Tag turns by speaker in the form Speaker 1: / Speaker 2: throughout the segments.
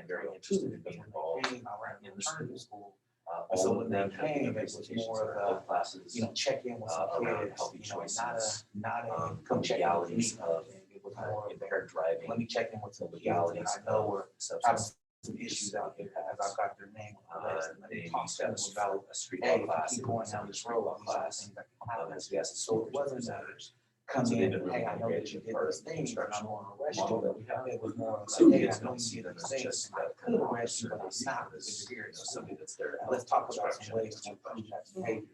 Speaker 1: I'm very interested in being involved
Speaker 2: Came around
Speaker 1: in the school.
Speaker 2: school,
Speaker 1: Uh,
Speaker 2: So
Speaker 1: all
Speaker 2: when
Speaker 1: of
Speaker 2: they
Speaker 1: them have
Speaker 2: came, it
Speaker 1: different
Speaker 2: was
Speaker 1: presentations
Speaker 2: more
Speaker 1: of
Speaker 2: of
Speaker 1: our classes.
Speaker 2: you know, check in with
Speaker 1: Uh,
Speaker 2: some
Speaker 1: around
Speaker 2: kids,
Speaker 1: healthy
Speaker 2: you know, not
Speaker 1: choices.
Speaker 2: a, not a
Speaker 1: um,
Speaker 2: come check in with me.
Speaker 1: legalities of,
Speaker 2: thing. It was
Speaker 1: uh,
Speaker 2: more of
Speaker 1: impaired driving. uh,
Speaker 2: a, let me check in with some kids and
Speaker 1: legalities
Speaker 2: I know where
Speaker 1: or
Speaker 2: I've
Speaker 1: substance.
Speaker 2: some issues out there as I've got their name. on the
Speaker 1: Uh,
Speaker 2: list, and Let me
Speaker 1: they
Speaker 2: talk to them
Speaker 1: discussed
Speaker 2: about,
Speaker 1: a street
Speaker 2: hey,
Speaker 1: law
Speaker 2: if I
Speaker 1: class.
Speaker 2: keep going down this road, these are the
Speaker 1: Class.
Speaker 2: things that can happen.
Speaker 1: As we asked the
Speaker 2: So
Speaker 1: school
Speaker 2: it wasn't that
Speaker 1: representatives.
Speaker 2: come
Speaker 1: So they've
Speaker 2: in,
Speaker 1: been really
Speaker 2: hey, I know that you
Speaker 1: engaged
Speaker 2: did
Speaker 1: part of
Speaker 2: this
Speaker 1: the
Speaker 2: thing, but I'm
Speaker 1: construction
Speaker 2: going to arrest
Speaker 1: Model
Speaker 2: you.
Speaker 1: that we have.
Speaker 2: It was more of
Speaker 1: So
Speaker 2: like, hey,
Speaker 1: yes,
Speaker 2: I know
Speaker 1: don't
Speaker 2: you
Speaker 1: see
Speaker 2: did
Speaker 1: them
Speaker 2: this
Speaker 1: as
Speaker 2: thing,
Speaker 1: just
Speaker 2: I
Speaker 1: a
Speaker 2: could arrest you,
Speaker 1: question,
Speaker 2: but I'm not with
Speaker 1: this, you know,
Speaker 2: experience. So
Speaker 1: something that's there.
Speaker 2: Let's talk about some ways to improve that behavior.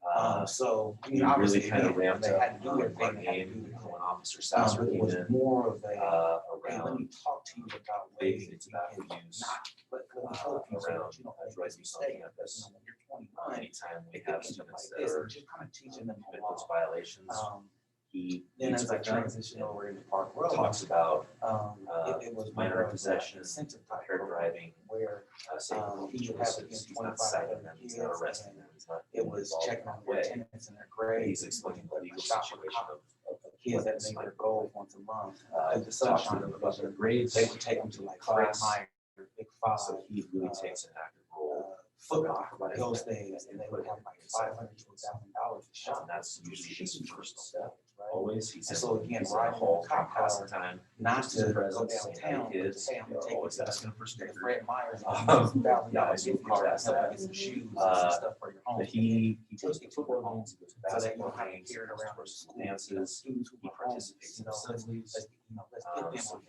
Speaker 2: Um,
Speaker 1: Uh,
Speaker 2: so, you
Speaker 1: we
Speaker 2: know, obviously,
Speaker 1: really
Speaker 2: they
Speaker 1: kind of ramped
Speaker 2: they had
Speaker 1: up
Speaker 2: to do
Speaker 1: on
Speaker 2: their
Speaker 1: our
Speaker 2: thing, they had to do
Speaker 1: game
Speaker 2: their thing.
Speaker 1: when Officer
Speaker 2: Um,
Speaker 1: Sasser
Speaker 2: but it
Speaker 1: came
Speaker 2: was
Speaker 1: in,
Speaker 2: more of a,
Speaker 1: uh,
Speaker 2: hey, let
Speaker 1: around
Speaker 2: me talk to you about ways
Speaker 1: basic
Speaker 2: that you
Speaker 1: tobacco
Speaker 2: can
Speaker 1: use.
Speaker 2: not, but let me
Speaker 1: uh,
Speaker 2: help you so
Speaker 1: around
Speaker 2: that you don't make
Speaker 1: drug
Speaker 2: this
Speaker 1: use on
Speaker 2: mistake. Because,
Speaker 1: campus.
Speaker 2: you know, when you're twenty-nine,
Speaker 1: Anytime we
Speaker 2: it
Speaker 1: have
Speaker 2: can be like
Speaker 1: students that
Speaker 2: this,
Speaker 1: are
Speaker 2: and just kind of teaching them
Speaker 1: commit
Speaker 2: a
Speaker 1: those
Speaker 2: lot.
Speaker 1: violations,
Speaker 2: Um,
Speaker 1: he
Speaker 2: then
Speaker 1: meets
Speaker 2: as I
Speaker 1: with them
Speaker 2: transitioned over into Park
Speaker 1: and
Speaker 2: Road,
Speaker 1: talks about
Speaker 2: um,
Speaker 1: uh,
Speaker 2: it, it was.
Speaker 1: minor
Speaker 2: more of a
Speaker 1: possession,
Speaker 2: incentive type
Speaker 1: impaired
Speaker 2: program
Speaker 1: driving,
Speaker 2: Where
Speaker 1: uh, safe
Speaker 2: Um,
Speaker 1: driving
Speaker 2: he would have
Speaker 1: choices.
Speaker 2: against
Speaker 1: He's not
Speaker 2: 25
Speaker 1: citing them, he's not
Speaker 2: kids,
Speaker 1: arresting
Speaker 2: and
Speaker 1: them, he's not.
Speaker 2: it was
Speaker 1: involved in
Speaker 2: checking
Speaker 1: that
Speaker 2: on their
Speaker 1: way.
Speaker 2: attendance and their
Speaker 1: And
Speaker 2: grades.
Speaker 1: He's explaining the legal
Speaker 2: Shop
Speaker 1: situation
Speaker 2: cop,
Speaker 1: of, of
Speaker 2: of Kids that make their goals once a month.
Speaker 1: uh,
Speaker 2: Like the sunshine
Speaker 1: talking
Speaker 2: was
Speaker 1: about their grades.
Speaker 2: They would take them to like Fred
Speaker 1: Class.
Speaker 2: Meyer, Big Five,
Speaker 1: So he really
Speaker 2: uh,
Speaker 1: takes an active
Speaker 2: uh,
Speaker 1: role.
Speaker 2: Foot Locker, like those things, and they would have like five hundred to a thousand dollars to
Speaker 1: And
Speaker 2: shop.
Speaker 1: that's usually his first step,
Speaker 2: Right?
Speaker 1: always. He's
Speaker 2: And so
Speaker 1: in-
Speaker 2: again,
Speaker 1: he's in
Speaker 2: riding
Speaker 1: the hall,
Speaker 2: the cop
Speaker 1: half
Speaker 2: car,
Speaker 1: the time.
Speaker 2: Not
Speaker 1: just his
Speaker 2: to go
Speaker 1: presence, saying, "Hey,
Speaker 2: downtown,
Speaker 1: kids,"
Speaker 2: say I'm
Speaker 1: you know,
Speaker 2: gonna take
Speaker 1: Always
Speaker 2: you to
Speaker 1: asking for
Speaker 2: the
Speaker 1: stickers.
Speaker 2: Fred Meyer's.
Speaker 1: Um,
Speaker 2: and $1,000
Speaker 1: yeah, I do
Speaker 2: gift
Speaker 1: get that
Speaker 2: cards,
Speaker 1: stuff.
Speaker 2: get Some shoes and
Speaker 1: Uh,
Speaker 2: some stuff for your home.
Speaker 1: But he, he
Speaker 2: Just
Speaker 1: goes to football games, he goes to
Speaker 2: So that you
Speaker 1: basketball
Speaker 2: don't have to
Speaker 1: games, he
Speaker 2: carry it
Speaker 1: goes
Speaker 2: around
Speaker 1: to
Speaker 2: for
Speaker 1: school
Speaker 2: school.
Speaker 1: dances,
Speaker 2: Students who
Speaker 1: he
Speaker 2: are homeless,
Speaker 1: participates
Speaker 2: you
Speaker 1: in
Speaker 2: know,
Speaker 1: assemblies.
Speaker 2: let's, Uh, you know, let's
Speaker 1: Um,
Speaker 2: get them
Speaker 1: so
Speaker 2: on
Speaker 1: he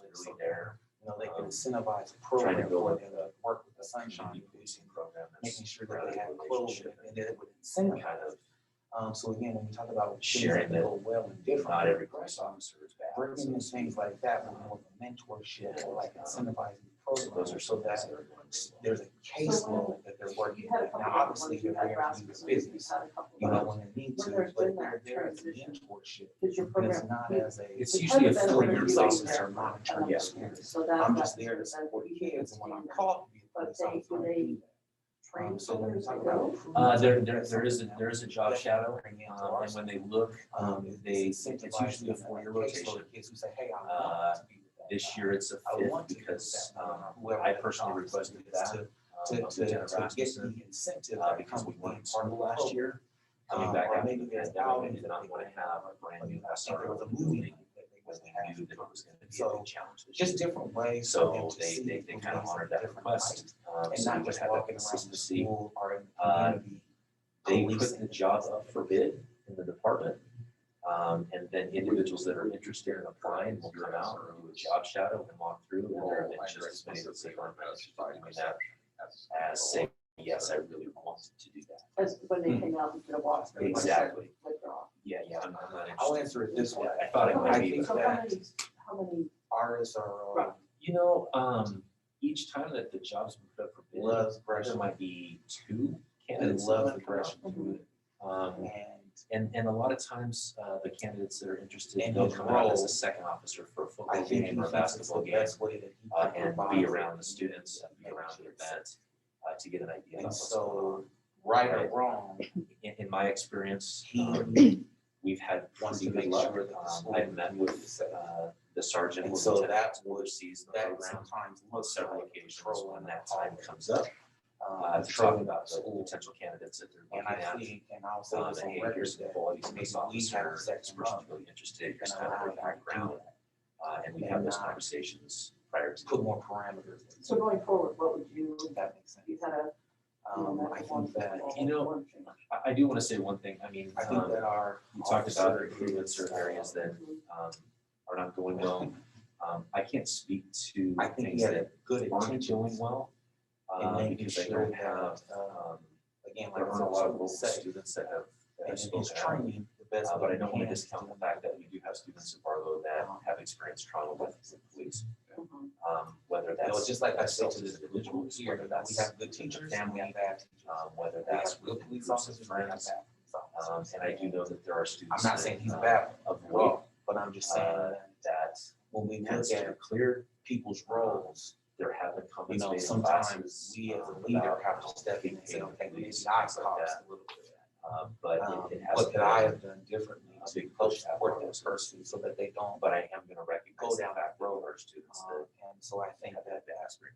Speaker 1: is
Speaker 2: one.
Speaker 1: really there.
Speaker 2: You know, they
Speaker 1: um,
Speaker 2: can incentivize a
Speaker 1: trying to
Speaker 2: program
Speaker 1: go
Speaker 2: for
Speaker 1: with
Speaker 2: them
Speaker 1: the-
Speaker 2: to work with the
Speaker 1: Sunshine
Speaker 2: sunshine,
Speaker 1: Policing Program.
Speaker 2: making
Speaker 1: That's
Speaker 2: sure that
Speaker 1: around
Speaker 2: they have
Speaker 1: the
Speaker 2: clothes
Speaker 1: relationship
Speaker 2: and that it would
Speaker 1: and Kind
Speaker 2: incentivize.
Speaker 1: of,
Speaker 2: Um, so again, when we talk about things
Speaker 1: Sharing
Speaker 2: that go well and different.
Speaker 1: not every
Speaker 2: right?
Speaker 1: police officer is bad.
Speaker 2: Bringing in
Speaker 1: So-
Speaker 2: things like that, with more of a mentorship or like incentivizing
Speaker 1: So
Speaker 2: programs.
Speaker 1: those are so
Speaker 2: so
Speaker 1: bad.
Speaker 2: that there's a caseload that they're working
Speaker 3: You had a
Speaker 2: with.
Speaker 3: couple
Speaker 2: Now,
Speaker 3: of
Speaker 2: obviously,
Speaker 3: ones
Speaker 2: they're
Speaker 3: you had
Speaker 2: there to
Speaker 3: last
Speaker 2: do the
Speaker 3: week, you
Speaker 2: business,
Speaker 3: had a couple
Speaker 2: you
Speaker 3: of
Speaker 2: know,
Speaker 3: ones.
Speaker 2: when they need to,
Speaker 3: When there's
Speaker 2: but
Speaker 3: been
Speaker 2: they're
Speaker 3: that
Speaker 2: there as a
Speaker 3: transition.
Speaker 2: mentorship.
Speaker 3: Did your
Speaker 2: And it's
Speaker 3: program,
Speaker 2: not
Speaker 3: meet-
Speaker 2: as a.
Speaker 1: It's usually a
Speaker 3: Depends on
Speaker 1: four
Speaker 3: where
Speaker 1: year
Speaker 3: you
Speaker 1: process.
Speaker 3: are.
Speaker 1: or not.
Speaker 2: Monitoring
Speaker 1: Yeah.
Speaker 2: experience.
Speaker 3: so that.
Speaker 2: I'm
Speaker 3: that-
Speaker 2: just there to
Speaker 3: that
Speaker 2: support
Speaker 3: you
Speaker 2: kids and
Speaker 3: can
Speaker 2: when I'm
Speaker 3: do that.
Speaker 2: called to be a
Speaker 3: But
Speaker 2: police
Speaker 3: they-
Speaker 2: officer.
Speaker 3: do
Speaker 2: I
Speaker 3: they
Speaker 2: do that. Um,
Speaker 3: train
Speaker 2: So when we
Speaker 3: others
Speaker 2: talk
Speaker 3: to
Speaker 2: about.
Speaker 3: go?
Speaker 1: Uh,
Speaker 2: improvement,
Speaker 1: there, there,
Speaker 2: that's
Speaker 1: there is, a
Speaker 2: something
Speaker 1: there
Speaker 2: that
Speaker 1: is a job
Speaker 2: we
Speaker 1: shadow.
Speaker 2: bring into
Speaker 1: Um,
Speaker 2: our
Speaker 1: and when they look,
Speaker 2: Um,
Speaker 1: um, they, it's usually a four year
Speaker 2: four-year
Speaker 1: rotation.
Speaker 2: rotation. Kids who say, hey,
Speaker 1: Uh,
Speaker 2: I want to be with that
Speaker 1: This
Speaker 2: guy.
Speaker 1: year it's a
Speaker 2: I
Speaker 1: fifth
Speaker 2: want to be with
Speaker 1: because,
Speaker 2: that
Speaker 1: um,
Speaker 2: guy, whoever
Speaker 1: I
Speaker 2: that
Speaker 1: personally
Speaker 2: officer
Speaker 1: requested
Speaker 2: is,
Speaker 1: that.
Speaker 2: To,
Speaker 1: um, of
Speaker 2: to, to,
Speaker 1: Lieutenant
Speaker 2: to get the
Speaker 1: Rasmussen,
Speaker 2: incentive
Speaker 1: uh,
Speaker 2: that
Speaker 1: because
Speaker 2: comes
Speaker 1: we
Speaker 2: with being
Speaker 1: weren't
Speaker 2: part
Speaker 1: part
Speaker 2: of the
Speaker 1: last
Speaker 2: program.
Speaker 1: year. Coming
Speaker 2: Um,
Speaker 1: back
Speaker 2: or
Speaker 1: after
Speaker 2: maybe
Speaker 1: the
Speaker 2: there's
Speaker 1: pandemic, we
Speaker 2: outings
Speaker 1: did
Speaker 2: that
Speaker 1: not
Speaker 2: they
Speaker 1: want
Speaker 2: would
Speaker 1: to have a
Speaker 2: I
Speaker 1: brand
Speaker 2: think
Speaker 1: new
Speaker 2: it was
Speaker 1: SRO
Speaker 2: a
Speaker 1: in the
Speaker 2: movie
Speaker 1: building.
Speaker 2: night that they
Speaker 1: Because
Speaker 2: would
Speaker 1: they
Speaker 2: have.
Speaker 1: knew that it was gonna be a
Speaker 2: So,
Speaker 1: big challenge. this
Speaker 2: Just
Speaker 1: year.
Speaker 2: different ways. for
Speaker 1: So
Speaker 2: them to
Speaker 1: they,
Speaker 2: see
Speaker 1: they, they kind of
Speaker 2: programs
Speaker 1: honored
Speaker 2: in
Speaker 1: that
Speaker 2: different lights,
Speaker 1: request. Um,
Speaker 2: And
Speaker 1: so we
Speaker 2: not
Speaker 1: would
Speaker 2: just
Speaker 1: have that
Speaker 2: walking around the
Speaker 1: consistency.
Speaker 2: school or in the
Speaker 1: Uh,
Speaker 2: community.
Speaker 1: They put
Speaker 2: policing.
Speaker 1: the job up for bid in the department. Um, and then individuals that are interested in applying will come out and do a job shadow and walk through. And there have been Oh, just as many that say, "Aren't I interested in doing that?" as saying, yes, I really wanted to do that.
Speaker 3: As when
Speaker 2: Hmm.
Speaker 3: they came out and did a walk.
Speaker 1: Exactly.
Speaker 3: Withdraw.
Speaker 1: Yeah, yeah, I'm I'm not
Speaker 2: I'll
Speaker 1: interested.
Speaker 2: answer it this way.
Speaker 1: I thought it might be.
Speaker 2: think
Speaker 3: So uh, how
Speaker 2: that-
Speaker 3: many, how many,
Speaker 2: Ours are, uh,
Speaker 1: You know, um, each time that the job's been put up for bid,
Speaker 2: love
Speaker 1: There
Speaker 2: brushing,
Speaker 1: might be two
Speaker 2: they
Speaker 1: candidates.
Speaker 2: love
Speaker 1: that
Speaker 2: the
Speaker 1: come out.
Speaker 2: brushing food.
Speaker 1: Um,
Speaker 2: And
Speaker 1: and, and a lot of times, uh, the candidates that are interested,
Speaker 2: And
Speaker 1: they'll
Speaker 2: his
Speaker 1: come out as
Speaker 2: role,
Speaker 1: a second officer for a
Speaker 2: I
Speaker 1: football
Speaker 2: think
Speaker 1: game
Speaker 2: he
Speaker 1: or a
Speaker 2: thinks it's
Speaker 1: basketball
Speaker 2: the
Speaker 1: game.
Speaker 2: best way that he
Speaker 1: Uh,
Speaker 2: can
Speaker 1: and
Speaker 2: provide
Speaker 1: be
Speaker 2: for
Speaker 1: around the
Speaker 2: kids.
Speaker 1: students, and be around the event, uh, to get an idea. about
Speaker 2: And
Speaker 1: what's going on.
Speaker 2: so, right or wrong,
Speaker 1: In, in my experience, um,
Speaker 2: he
Speaker 1: we've had
Speaker 2: wants
Speaker 1: pretty
Speaker 2: to
Speaker 1: good
Speaker 2: make
Speaker 1: luck.
Speaker 2: sure that the
Speaker 1: Um,
Speaker 2: school.
Speaker 1: I've met with,
Speaker 2: is, uh,
Speaker 1: uh, the sergeant.
Speaker 2: And
Speaker 1: or
Speaker 2: so
Speaker 1: lieutenant
Speaker 2: that
Speaker 1: who oversees the
Speaker 2: That
Speaker 1: program
Speaker 2: sometimes
Speaker 1: on
Speaker 2: looks
Speaker 1: several
Speaker 2: like
Speaker 1: occasions
Speaker 2: control
Speaker 1: when
Speaker 2: and
Speaker 1: that
Speaker 2: that
Speaker 1: time comes up, uh,
Speaker 2: um,
Speaker 1: to talk
Speaker 2: control
Speaker 1: about the
Speaker 2: school.
Speaker 1: potential candidates that they're looking
Speaker 2: And I
Speaker 1: at.
Speaker 2: think, and I'll say
Speaker 1: Um,
Speaker 2: this
Speaker 1: and
Speaker 2: on
Speaker 1: hey,
Speaker 2: record,
Speaker 1: here's the qualities of
Speaker 2: maybe
Speaker 1: this
Speaker 2: we have a
Speaker 1: officer,
Speaker 2: second
Speaker 1: this person's
Speaker 2: month
Speaker 1: really interested, here's
Speaker 2: and
Speaker 1: kind of
Speaker 2: allow
Speaker 1: their
Speaker 2: that
Speaker 1: background.
Speaker 2: ground,
Speaker 1: Uh, and we
Speaker 2: and
Speaker 1: have those
Speaker 2: not
Speaker 1: conversations prior to.
Speaker 2: put more parameters. in.
Speaker 3: so going forward, what would you,
Speaker 2: If that makes sense.
Speaker 3: you had a.
Speaker 2: Um, I think that,
Speaker 1: you know, I, I do want to say one thing, I mean,
Speaker 2: I think
Speaker 1: um,
Speaker 2: that our.
Speaker 1: you talked about
Speaker 2: officer
Speaker 1: improvements or
Speaker 2: is,
Speaker 1: areas that, um, are not going well. Um, I can't speak to
Speaker 2: I think
Speaker 1: things
Speaker 2: he had
Speaker 1: that
Speaker 2: a good
Speaker 1: aren't doing
Speaker 2: intentions.
Speaker 1: well.
Speaker 2: And
Speaker 1: um,
Speaker 2: making
Speaker 1: because I
Speaker 2: sure
Speaker 1: don't
Speaker 2: that,
Speaker 1: have,
Speaker 2: uh,
Speaker 1: um,
Speaker 2: Again, like
Speaker 1: there
Speaker 2: I
Speaker 1: aren't
Speaker 2: said,
Speaker 1: a lot of
Speaker 2: school
Speaker 1: local
Speaker 2: safe.
Speaker 1: students that have, that
Speaker 2: And
Speaker 1: have
Speaker 2: in
Speaker 1: spoken
Speaker 2: his
Speaker 1: out.
Speaker 2: training, the best.
Speaker 1: Uh, but
Speaker 2: way
Speaker 1: I don't
Speaker 2: he
Speaker 1: want to
Speaker 2: can
Speaker 1: discount the fact that we do have students in Barlow that
Speaker 2: Uh-huh.
Speaker 1: have experienced trauma with the police. Um, whether
Speaker 2: You know,
Speaker 1: that's,
Speaker 2: Mm-hmm. just like I said
Speaker 1: self
Speaker 2: to
Speaker 1: as
Speaker 2: this
Speaker 1: an
Speaker 2: individual
Speaker 1: individual,
Speaker 2: here,
Speaker 1: whether
Speaker 2: that we
Speaker 1: that's
Speaker 2: have good teachers, and we
Speaker 1: family,
Speaker 2: have bad teachers.
Speaker 1: um, whether
Speaker 2: We have
Speaker 1: that's
Speaker 2: good
Speaker 1: with
Speaker 2: police
Speaker 1: groups
Speaker 2: officers,
Speaker 1: of
Speaker 2: and we have bad
Speaker 1: friends.
Speaker 2: police
Speaker 1: Um,
Speaker 2: officers.
Speaker 1: and I do know that there are students.
Speaker 2: I'm not
Speaker 1: that,
Speaker 2: saying he's
Speaker 1: uh,
Speaker 2: bad
Speaker 1: Of
Speaker 2: at
Speaker 1: weight
Speaker 2: all, but I'm just saying
Speaker 1: Uh,
Speaker 2: that
Speaker 1: that
Speaker 2: when we look
Speaker 1: has
Speaker 2: at
Speaker 1: to clear,
Speaker 2: people's roles,
Speaker 1: there have been
Speaker 2: you
Speaker 1: companies
Speaker 2: know,
Speaker 1: made in
Speaker 2: sometimes
Speaker 1: classes.
Speaker 2: we as
Speaker 1: um,
Speaker 2: a leader
Speaker 1: about
Speaker 2: have to step in and say,
Speaker 1: being
Speaker 2: okay,
Speaker 1: paid
Speaker 2: maybe I
Speaker 1: police,
Speaker 2: caused
Speaker 1: things like that.
Speaker 2: a little bit of that.
Speaker 1: Um, But
Speaker 2: Um,
Speaker 1: it- it has.
Speaker 2: What
Speaker 1: to
Speaker 2: could
Speaker 1: be
Speaker 2: I have done differently
Speaker 1: a
Speaker 2: to
Speaker 1: big
Speaker 2: help
Speaker 1: push out
Speaker 2: support
Speaker 1: for
Speaker 2: this
Speaker 1: those.
Speaker 2: person so that they don't?
Speaker 1: But I am gonna recognize.
Speaker 2: Go down that
Speaker 1: road. Our students that
Speaker 2: um, And so I think that
Speaker 1: have the aspirate